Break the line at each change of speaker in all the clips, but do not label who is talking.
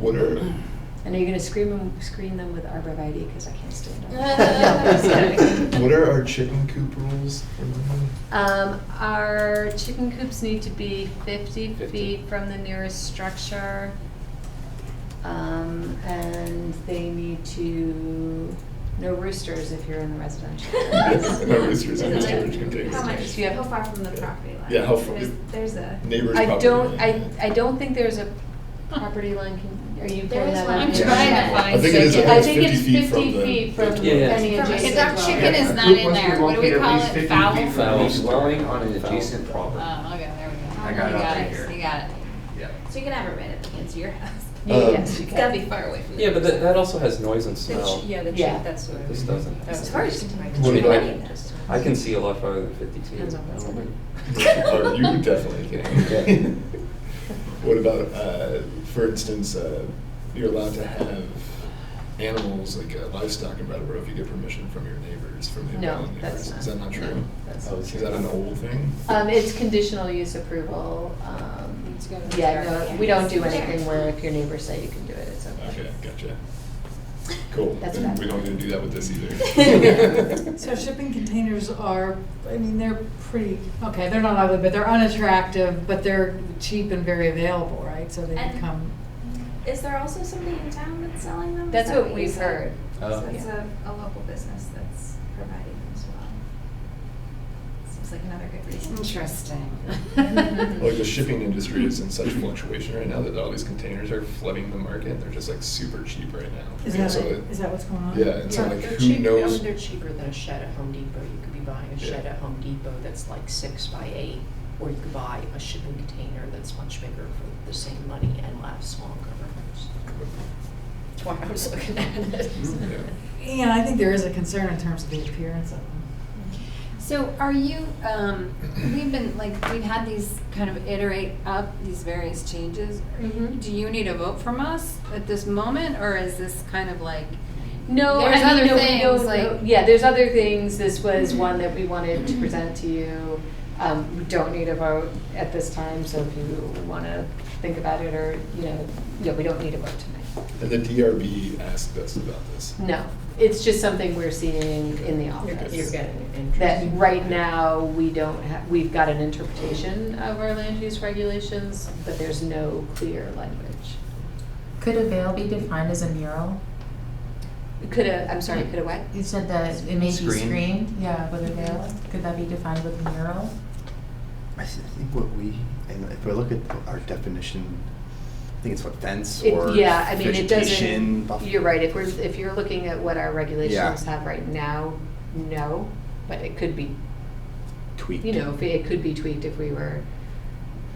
What are,
And are you gonna screen them, screen them with arborvitae, because I can't stand them. No, I'm just kidding.
what are our chicken coop rules?
Um, our chicken coops need to be fifty
50.
feet from the nearest structure.
Um, and they need to, no roosters if you're in the residential. areas.
No roosters in the storage
How
containers.
much,
Do you have-
how far from the property line?
Yeah, how far-
There's, there's a.
Neighbors
I
probably-
don't, I, I don't think there's a property line, con- are you
There
pulling
is
that
one.
up?
I'm trying to
I think it is,
Okay.
I
I
think
think
it's 50 feet
it's
from
50
the.
feet from
Yeah, yeah.
any
From-
adjacent
Because our
dwelling.
chicken is
Yeah,
not in
once
there,
we
what do we
locate at
call
least
it,
50
foul? Oh,
feet from
Foul
each
dwelling
door.
on an adjacent property.
Um, okay, there we go.
I got it
You
up right
it,
here.
You got it.
Yeah.
So you can have a red at the kids' your house.
Yeah, Yes,
Um,
you
It's gotta be
can.
far away from the.
Yeah, but that, that also has noise and
The ch-
smell.
Yeah, the chick,
Yeah.
that's what.
This doesn't.
It's
hard
to
What
Maybe
about-
I- I can see a lot farther than fifty feet.
Depends on what's in it.
Oh, you were definitely
Yeah.
kidding. What about, uh, for instance, uh, you're allowed to have animals like uh, livestock in Brattleboro if you get permission from your neighbors, from the
No,
around neighbors.
that's not.
Is that not
no,
true?
that's
Oh,
not
Is
it's-
true.
that an old thing?
Um, it's conditional use approval, um,
It's gotta be
yeah,
there.
no, we don't do
Sure.
anything where if your neighbors say you can do it, it's okay.
Okay, gotcha. Cool.
That's
Then
bad.
We don't need to do that with this either.
Yeah.
So shipping containers are, I mean, they're pretty, okay, they're not ugly, but they're unattractive, but they're cheap and very available, right? So they
And-
become,
Is there also somebody in town that's selling them? Is
That's
that
what
you
we've
said?
heard.
Oh.
So it's
Yeah.
a, a local business that's providing them as well. Seems like another good reason.
Interesting.
Oh,
Like the shipping industry is in such fluctuation right now that all these containers are flooding the market. They're just like super cheap right now.
is
And
that,
so
like-
it-
is that what's going on?
Yeah, and so like
They're
who
cheap-
knows?
um, They're cheaper than a shed at Home Depot. You could be buying a
Yeah.
shed at Home Depot that's like six by eight, or you could buy a shipping container that's much bigger for the same money and lasts longer. That's why I was looking at it.
Yeah.
Mm-hmm.
And I think there is a concern in terms of the appearance of them.
So are you, um, we've been, like, we've had these kind of iterate up, these various changes.
Mm-hmm.
Mhm.
Do you need a vote from us at this moment, or is this kind of like,
No,
There's
I mean,
other
no,
things,
no,
like-
no, yeah, there's other things. This was one that we wanted to present to you. Um, we don't need a vote at this time, so if you want to think about it or, you know, yeah, we don't need a vote tonight.
And the DRB asked us about this.
No, it's just something we're seeing in the
You're
office.
get- You're getting an interest.
That right now, we don't have, we've got an interpretation of our land use regulations, but there's no clear language.
Could a veil be defined as a mural?
Could a, I'm sorry, could a what?
You said that it may be
Screen.
screened, yeah, with a veil. Could that be defined with a mural?
I s- I think what we, and if we look at our definition, I think it's what fence
It-
or
Yeah, I mean, it doesn't,
vegetation. buff-
you're right, if we're, if you're looking at what our regulations
Yeah.
have right now, no, but it could be,
Tweaked.
you know, if it could be tweaked if we were,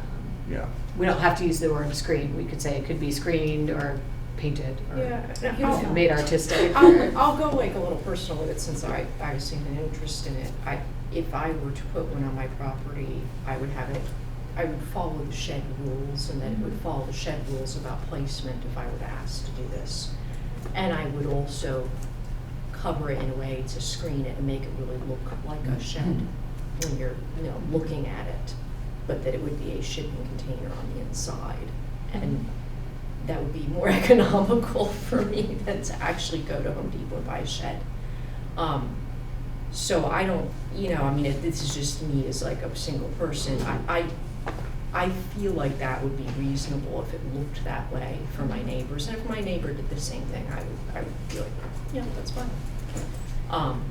um,
Yeah.
we don't have to use the word screen, we could say it could be screened or painted or
Yeah, Oh.
you know, made artistic.
I'll,
or-
I'll go like a little personal with it since I, I've seen an interest in it. I, if I were to put one on my property, I would have it, I would follow the shed rules and then it would follow the shed rules about placement if I were asked to do this. And I would also cover it in a way to screen it and make it really look like a shed when you're, you know, looking at it. But that it would be a shipping container on the inside and that would be more economical for me than to actually go to Home Depot and buy a shed. Um, so I don't, you know, I mean, it- this is just me as like a single person. I, I, I feel like that would be reasonable if it looked that way for my neighbors. And if my neighbor did the same thing, I would, I would be like, yeah, that's fine. Um,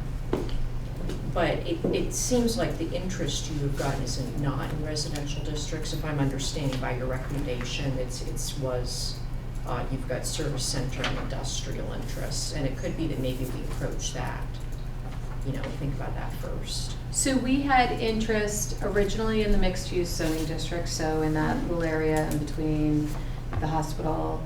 but it, it seems like the interest you have gotten is in not in residential districts, if I'm understanding by your recommendation, it's, it's was, uh, you've got service center and industrial interests, and it could be that maybe we approach that, you know, think about that first.
So we had interest originally in the mixed-use zoning district, so in that little area in between the hospital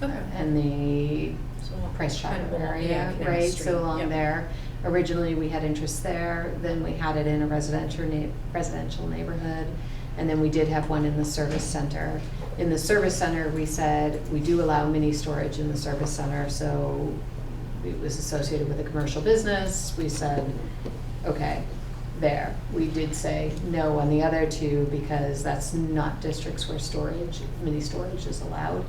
and the
So we'll
Price
kind of
Chopper
all- yeah,
area,
Canal
right,
Street,
so along
yep.
there. Originally, we had interest there, then we had it in a residential neigh- residential neighborhood, and then we did have one in the service center. In the service center, we said, we do allow mini storage in the service center, so it was associated with a commercial business, we said, okay, there. We did say no on the other two because that's not districts where storage, mini storage is allowed.